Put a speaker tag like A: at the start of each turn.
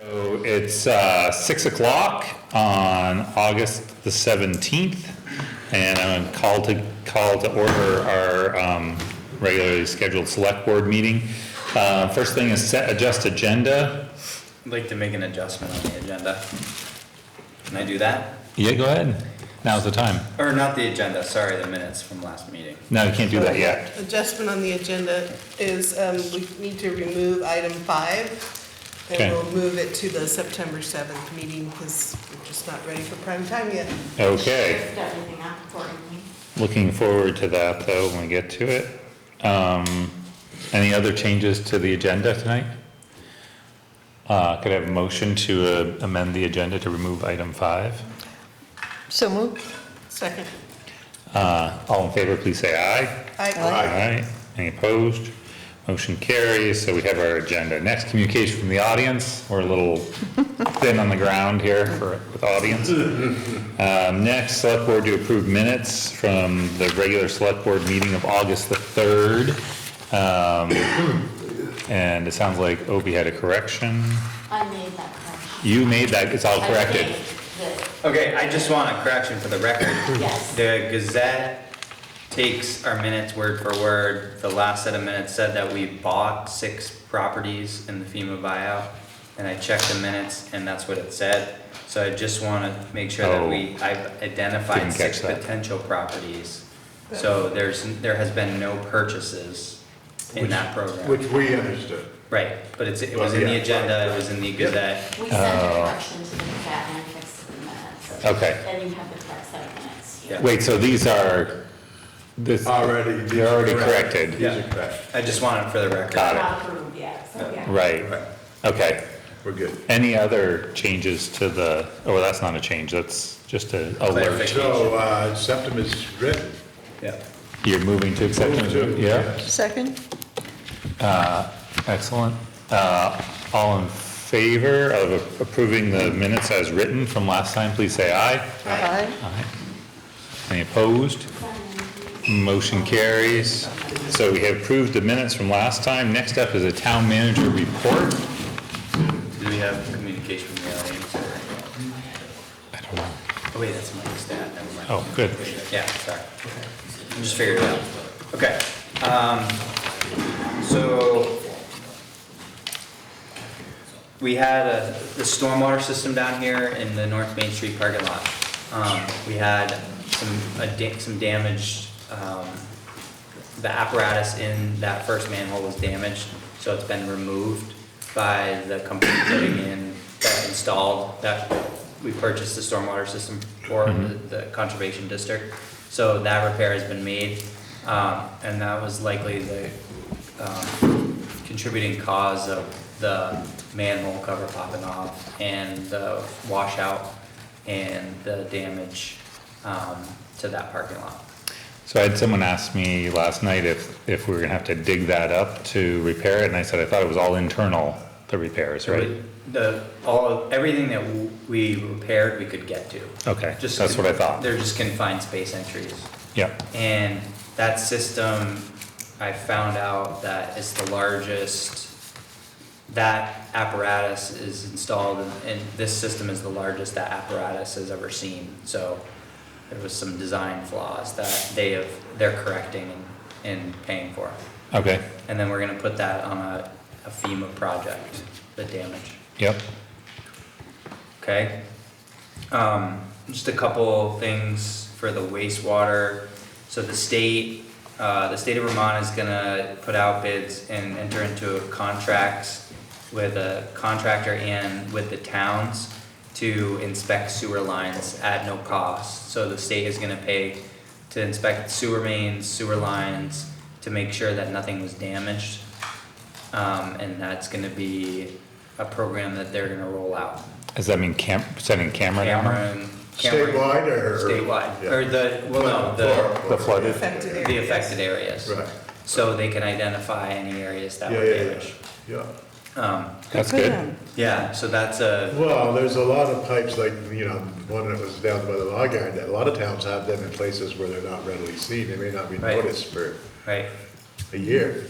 A: So It's uh, 6 o'clock on August the 17th, and I'm going to call to, call to order our um, regularly scheduled select board meeting. Uh, First thing is set adjust agenda.
B: I'd like to make an adjustment on the agenda. Can I do that?
A: Yeah, go ahead. Now's the time.
B: Or not the agenda, sorry, the minutes from last meeting.
A: No, you can't do that yet.
C: Adjustment on the agenda is um, we need to remove item five.
A: Okay.
C: And we'll move it to the September 7th meeting because we're just not ready for prime time yet.
A: Okay,
D: Shift everything up accordingly.
A: looking forward to that, though, when we get to it. Um, Any other changes to the agenda tonight? Uh, Could I have a motion to uh, amend the agenda to remove item 5?
E: So moved.
C: Second.
A: Uh, all in favor, please say aye.
C: I
A: Aye. Any opposed? Motion carries, so we have our agenda. Next, communication from the audience. We're a little thin on the ground here for, with audience. Um, next, select board to approve minutes from the regular select board meeting of August the third. Um, and it sounds like Opie had a correction.
D: I made that correction.
A: You made that, it's all Oh, corrected.
D: I made the-
B: Okay, I just want a correction for the record.
D: Yes.
B: The Gazette takes our minutes word for word. The last set of minutes said that we bought six properties in the FEMA buyout. And I checked the minutes and that's what it said. So I just wanna make sure that we, I've identified
A: Oh. Didn't catch
B: six
A: that.
B: potential properties. So there's, there has been no purchases in
F: Which-
B: that program.
F: Which we understood.
B: Right, but it's, it
A: Oh,
B: was in
F: Yeah.
B: the agenda, it was in the Gazette.
D: We sent a correction to the cat and I fixed it in the minutes.
A: Okay.
D: Then you have the correct set of minutes.
B: Yeah.
A: Wait, so these are, this,
F: Already.
A: They're already corrected.
F: These are correct.
B: I just wanted for the
A: Got
B: record.
A: it.
D: Not approved yet, so yeah.
A: right, okay.
F: We're good.
A: Any other changes to the, oh, that's not a change, that's just a alert.
B: Clarification.
F: So, uh, septum is written.
B: Yeah.
A: You're moving to acceptance,
F: Move to-
A: yeah,
E: Second?
A: excellent. Uh, all in favor of approving the minutes as written from last time, please say aye.
E: Aye.
A: Aye. Any opposed? Motion carries. So we have approved the minutes from last time. Next up is a town manager report.
B: Do we have communication from the audience?
A: I don't know.
B: Oh wait, that's Mike's dad, never mind.
A: Oh, good.
B: Yeah, sorry. I Just figured it out. Okay, um, so we had a, the stormwater system down here in the North Main Street parking lot. Um, we had some, a da- some damaged, um, the apparatus in that first manhole was damaged, so it's been removed by the company putting in, that installed, that we purchased the stormwater system for the the conservation district. So that repair has been made, um, and that was likely the, um, contributing cause of the manhole cover popping off and the washout and the damage, um, to that parking lot.
A: So I had someone ask me last night if, if we were gonna have to dig that up to repair it, and I said I thought it was all internal, the repairs, right?
B: The, all, everything that w- we repaired, we could get to.
A: Okay,
B: Just-
A: that's what I thought.
B: They're just confined space entries.
A: Yeah,
B: And that system, I found out that it's the largest, that apparatus is installed and- and this system is the largest that apparatus has ever seen. So there was some design flaws that they have, they're correcting and and paying for.
A: okay,
B: And then we're gonna put that on a a FEMA project, the damage.
A: yep,
B: Okay. Um, just a couple things for the wastewater. So the state, uh, the state of Vermont is gonna put out bids and enter into contracts with a contractor and with the towns to inspect sewer lines at no cost. So the state is gonna pay to inspect sewer mains, sewer lines, to make sure that nothing was damaged. Um, and that's gonna be a program that they're gonna roll out.
A: does that mean cam, sending camera down?
B: Cameron. Cameron-
F: Statewide or?
B: Statewide,
F: Yeah.
B: or the, well, no, the,
F: For-
A: The flooded?
C: Affected
B: the affected areas.
F: Right.
B: So they can identify any areas that
F: Yeah,
B: were
F: yeah, yeah,
B: damaged.
F: yeah.
B: Um,
E: Good
A: That's
E: for
A: good,
E: them.
B: yeah, so that's a,
F: Well, there's a lot of pipes, like, you know, the one that was down by the log yard, that a lot of towns have them in places where they're not readily seen. They may not be
B: Right.
F: noticed for
B: right,
F: a year.